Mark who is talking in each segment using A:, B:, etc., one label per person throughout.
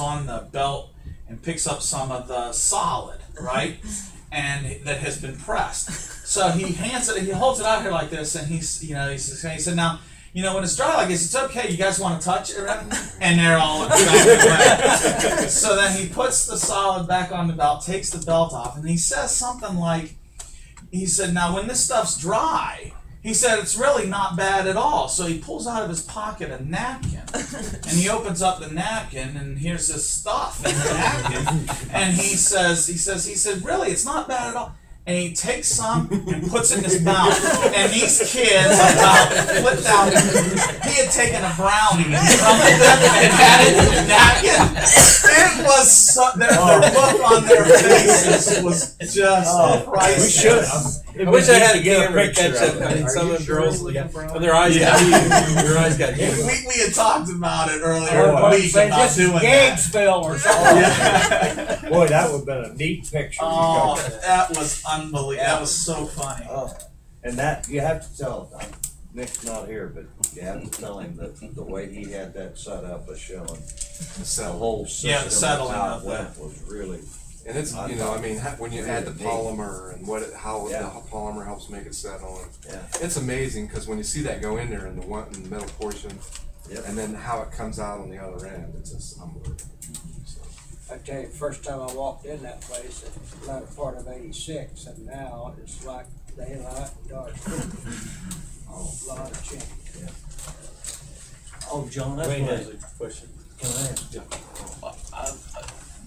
A: on the belt and picks up some of the solid, right? and that has been pressed. So he hands it, he holds it out here like this, and he's, you know, he's, he said, now, you know, when it's dry like this, it's okay. You guys want to touch it, and they're all attracted away. so then he puts the solid back on the belt, takes the belt off, and he says something like, he said, now when this stuff's dry. He said it's really not bad at all. So he pulls out of his pocket a napkin, and he opens up the napkin, and here's this stuff in the napkin. And he says, he says, he said, really, it's not bad at all. And he takes some and puts it in his mouth. And these kids about flipped out. He had taken a brownie and crumbled it and had it in the napkin. It was so, their, their look on their faces was just
B: Oh,
A: priceless.
B: we should.
C: I wish I had a
B: Get a
C: camera to catch
B: picture of
C: that.
B: it.
C: I mean,
B: Are
C: some
B: you
C: of the
B: sure
C: girls,
B: it's
C: like,
B: looking for
C: when their eyes
A: Yeah.
C: got huge, their eyes got
A: We,
C: huge.
A: we had talked about it earlier
B: Oh,
A: in the week
D: Say
A: about
D: just
A: doing
D: gag
A: that.
D: spell or something.
A: Yeah.
B: Boy, that would have been a neat picture.
A: oh, that was unbelievable. That was so funny.
B: Oh.
E: And that, you have to tell, uh, Nick's not here, but you have to tell him that the way he had that set up was showing. The whole system.
A: Yeah, the settling
E: how
A: of
E: it went Was really,
F: And it's you know, I mean, ha- when you add the polymer and what it, how
E: Yeah.
F: the polymer helps make it settle, and
E: Yeah.
F: it's amazing because when you see that go in there in the one in the metal portion,
E: Yep.
F: and then how it comes out on the other end, it's just unbelievable. So,
D: I tell you, first time I walked in that place, it was the latter part of eighty-six, and now it's like daylight and dark. Oh, lot of change.
C: Oh, John, that's
B: Wait,
C: one
B: uh,
C: of the questions.
B: Can I ask you-
C: Uh,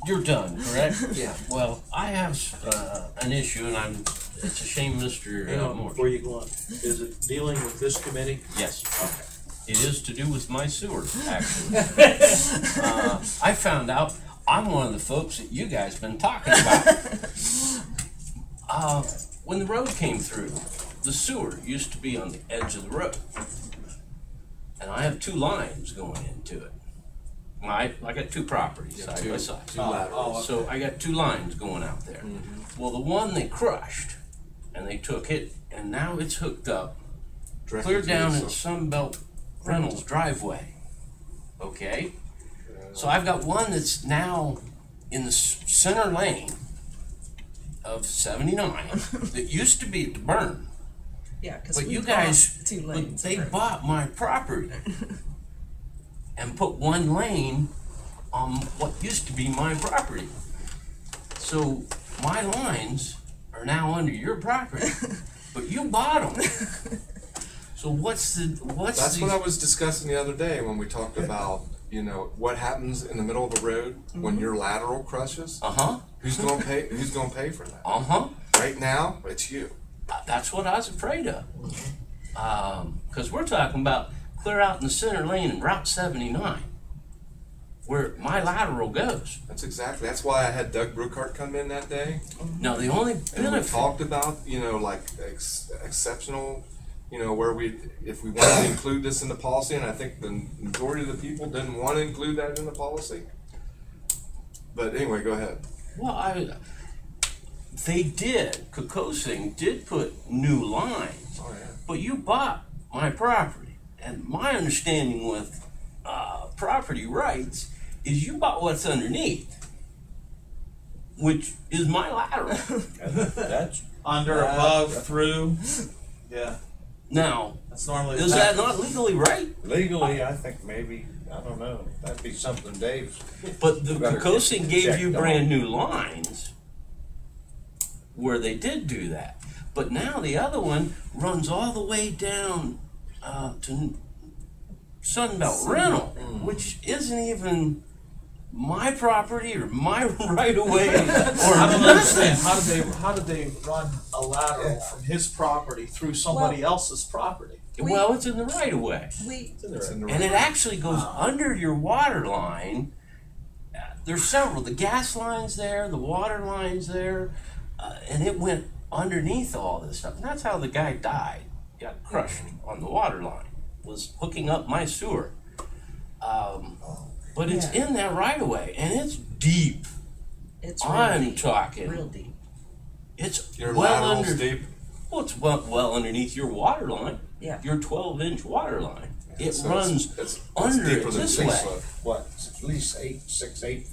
G: You're done, correct?
F: Yeah.
G: Well, I have uh, an issue, and I'm. It's a shame, Mister
C: Hang
G: uh,
C: on,
G: Moore.
C: before you go on, is it dealing with this committee?
G: Yes. It is to do with my sewer, actually. uh, I found out I'm one of the folks that you guys been talking about. uh, when the road came through, the sewer used to be on the edge of the road, and I have two lines going into it. My, I got two properties
F: Yeah,
G: side
F: two-
G: by side.
F: two laterals.
G: So I got two lines going out there. Well, the one they crushed, and they took it, and now it's hooked up
F: directly
G: clear
F: to
G: down
F: the
G: at
F: sub-
G: Sunbelt Reynolds driveway. Okay? So I've got one that's now in the s- center lane of seventy-nine that used to be at the burn.
H: Yeah, because
G: But you guys,
H: two
G: but
H: lanes.
G: they
H: of road.
G: bought my property and put one lane on what used to be my property. So my lines are now under your property, but you bought them. So what's the, what's the?
F: That's what I was discussing the other day when we talked about you know what happens in the middle of the road
E: Mm-hmm.
F: when your lateral crushes.
G: Uh-huh,
F: Who's gonna pay? Who's gonna pay for that?
G: uh-huh.
F: Right now, it's you.
G: That's what I was afraid of. Um, cause we're talking about clear out in the center lane in Route seventy-nine, where my lateral goes.
F: That's exactly. That's why I had Doug Brookhart come in that day.
G: Now, the only
F: And we
G: benefit,
F: talked about, you know, like ex- exceptional, you know, where we, if we wanted to include this in the policy, and I think the majority of the people didn't want to include that in the policy. But anyway, go ahead.
G: well, I, they did, Kokosing did put new lines,
F: Oh, yeah.
G: but you bought my property. And my understanding with, uh, property rights is you bought what's underneath, which is my lateral.
B: That's
A: Under, above, through. Yeah,
G: Now,
A: that's normally.
G: is that not legally right?
B: legally,
E: I think maybe, I don't know, that'd be something Dave's.
G: But the
E: Better
G: Kokosin gave
E: check
G: you
E: the
G: brand new lines where they did do that. But now the other one runs all the way down uh, to Sunbelt Rental,
E: mm.
G: which isn't even my property or my right of way or
A: I don't understand.
G: nothing.
A: How did they? How did they run a lateral from his property through somebody else's property?
G: Well, it's in the right of way.
H: We
F: It's in the
G: And it actually goes under your water line. Uh, There's several, the gas lines there, the water lines there, uh, and it went underneath all this stuff. And that's how the guy died, got crushed on the water line, was hooking up my sewer. Um, but it's
H: Yeah.
G: in that right away, and it's deep.
H: it's
G: I'm
H: real deep,
G: talking.
H: real deep.
G: It's
F: Your
G: well
F: lateral's
G: under.
F: deep.
G: Well, it's well, well underneath your water line,
H: Yeah.
G: your 12 inch water line. It
F: So it's-
G: runs
F: it's- it's
G: under
F: deeper
G: it
F: than
G: this
F: six
G: way.
F: foot.
E: what, at least eight, six, eight